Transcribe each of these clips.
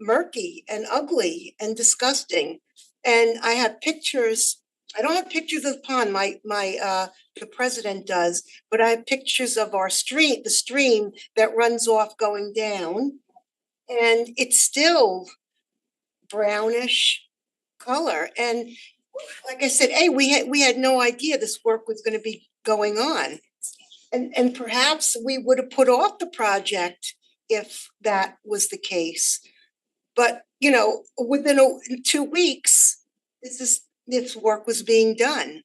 murky and ugly and disgusting. And I have pictures, I don't have pictures of the pond, my, my, uh, the president does, but I have pictures of our street, the stream that runs off going down. And it's still brownish color. And like I said, hey, we had, we had no idea this work was gonna be going on. And, and perhaps we would have put off the project if that was the case. But, you know, within a, in two weeks, this is, this work was being done.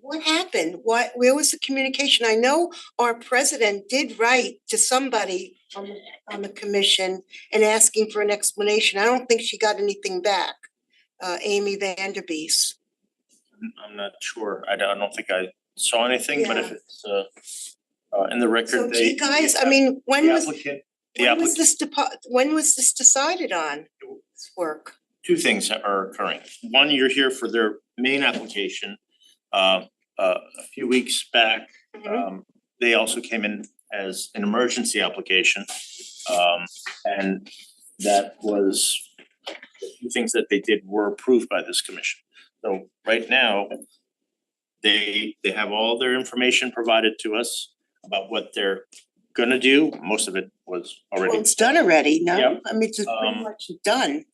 What happened? What, where was the communication? I know our president did write to somebody on the, on the commission and asking for an explanation. I don't think she got anything back. Uh, Amy Vanderbeest. I'm not sure. I don't, I don't think I saw anything, but if Yeah. it's uh uh in the So record, do they. you guys, I mean, when The was, applicant, the when was applicant, this depo- when was this decided on? This work? two things are occurring. One, you're here for their main application. Uh uh a few weeks back, um they also came in as an emergency application. Um and that was the few things that they did were approved by this commission. So right now, they they have all their information provided to us about what they're gonna do. Most of it was Well, already it's done already, no? Yep. I mean, it's just pretty Um, much done.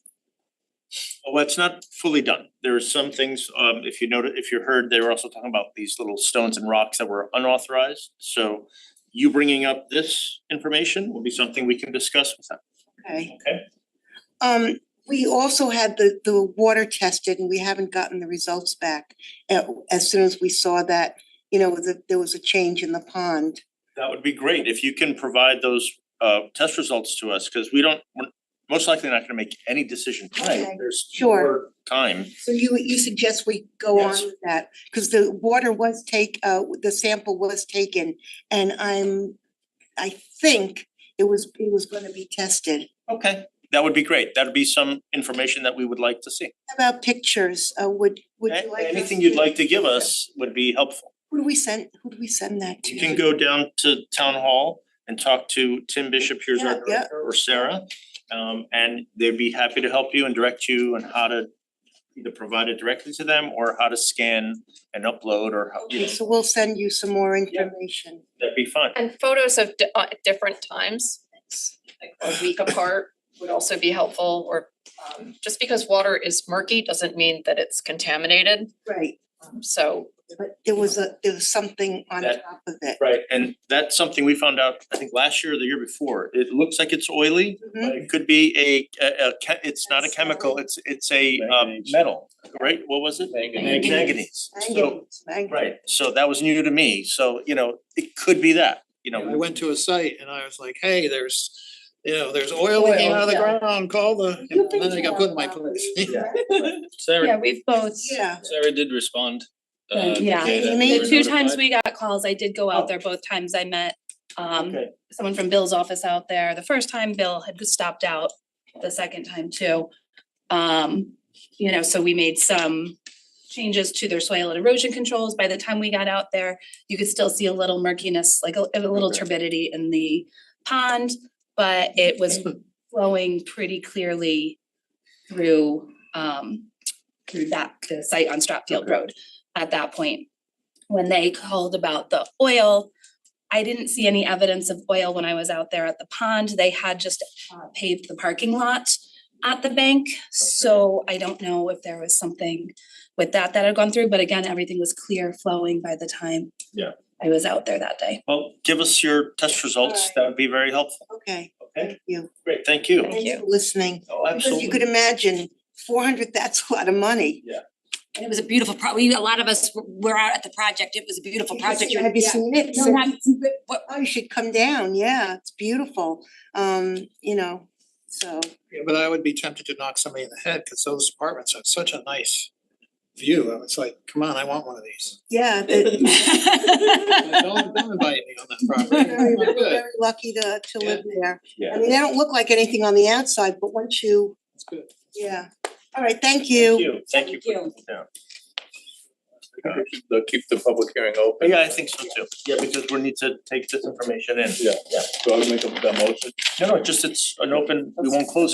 Well, it's not fully done. There are some things, um, if you noted, if you heard, they were also talking about these little stones and rocks that were unauthorized. So you bringing up this information will be something we can discuss with them. Okay. Okay. Um, we also had the, the water tested and we haven't gotten the results back. Uh, As soon as we saw that, you know, that there was a change in the pond. That would be great if you can provide those, uh, test results to us, because we don't, we're most likely not gonna make any decision Okay, tonight. There's sure. more time. So you, you suggest we go on Yes. with that? Because the water was take, uh, the sample was taken and I'm, I think it was, it was gonna be tested. Okay. That would be great. That'd be some information that we would like to see. How about pictures? Uh, would, would A- you like? us Anything you'd like to give us would be helpful. Who do we send, who do we send that to? You can go down to town hall and talk to Tim Bishop, here's our Yeah, yeah. director, or Sarah. Um, and they'd be happy to help you and direct you on how to either provide it directly to them or how to scan and upload or how, you Okay, know, so we'll send you some more Yeah. information. that'd be fine. And photos of di- uh, at different times, like a week apart would also be helpful or um just because water is murky doesn't mean that it's contaminated. Right, Um, So but there was a, there was something on That- top of it. Right, and that's something we found out, I think, last year or the year before. It looks like it's oily, Mhm. but it could be a, a, a che- it's not a chemical, it's, it's a um Manganese. metal, right? What was it? Manganese. Manganese. So, Manganese, manganese. Right, so that was new to me, so you know, it could be that, you know. I went to a site and I was like, hey, there's, you know, there's oil leaking out of the ground, call the, You've and then I got put in my place. Yeah, Sarah, we've Oh, both, Yeah, Sarah did respond. uh, to Yeah. say that Amy? we the were two times notified. we got calls, I did go out there both times I met um Okay. someone from Bill's office out there. The first time Bill had stopped out, the second time too. Um, you know, so we made some changes to their soil and erosion controls. By the time we got out there, you could still see a little murkiness, like a a little turbidity in the pond, but it was flowing pretty clearly through um through that, the site on Stratfield Road at that point. When they called about the oil, I didn't see any evidence of oil when I was out there at the pond. They had just uh, paved the parking lot at the bank, so I don't know if there was something with that that had gone through, but again, everything was clear flowing by the time Yeah. I was out there that day. Well, give us your test results, Alright. that would be very helpful, okay, okay? thank you. Great, thank you. Thank Thanks you. for listening. Oh, Because you absolutely. could imagine, four hundred, that's a lot of money. And it was a beautiful pro, we, a lot of us were- were out at the project, it was a beautiful project. Have you seen it? No, not, but what, Oh, you should come down, yeah, it's beautiful, um, you know, so. Yeah, But I would be tempted to knock somebody in the head, cause those apartments have such a nice view, I was like, come on, I want one of these. Yeah, the- Like, Don't don't invite me on that property, very, I'm not good, very lucky to, to live there. I Yeah. mean, they don't look like anything on the outside, but once you, it's good. yeah, all right, thank Thank you. you, thank you. for Thank coming down. They'll keep the public hearing open. Yeah, I think so too, yeah, because we need to take this information in. Yeah, yeah. So I'll make a, the motion. No, no, just it's an open, we won't close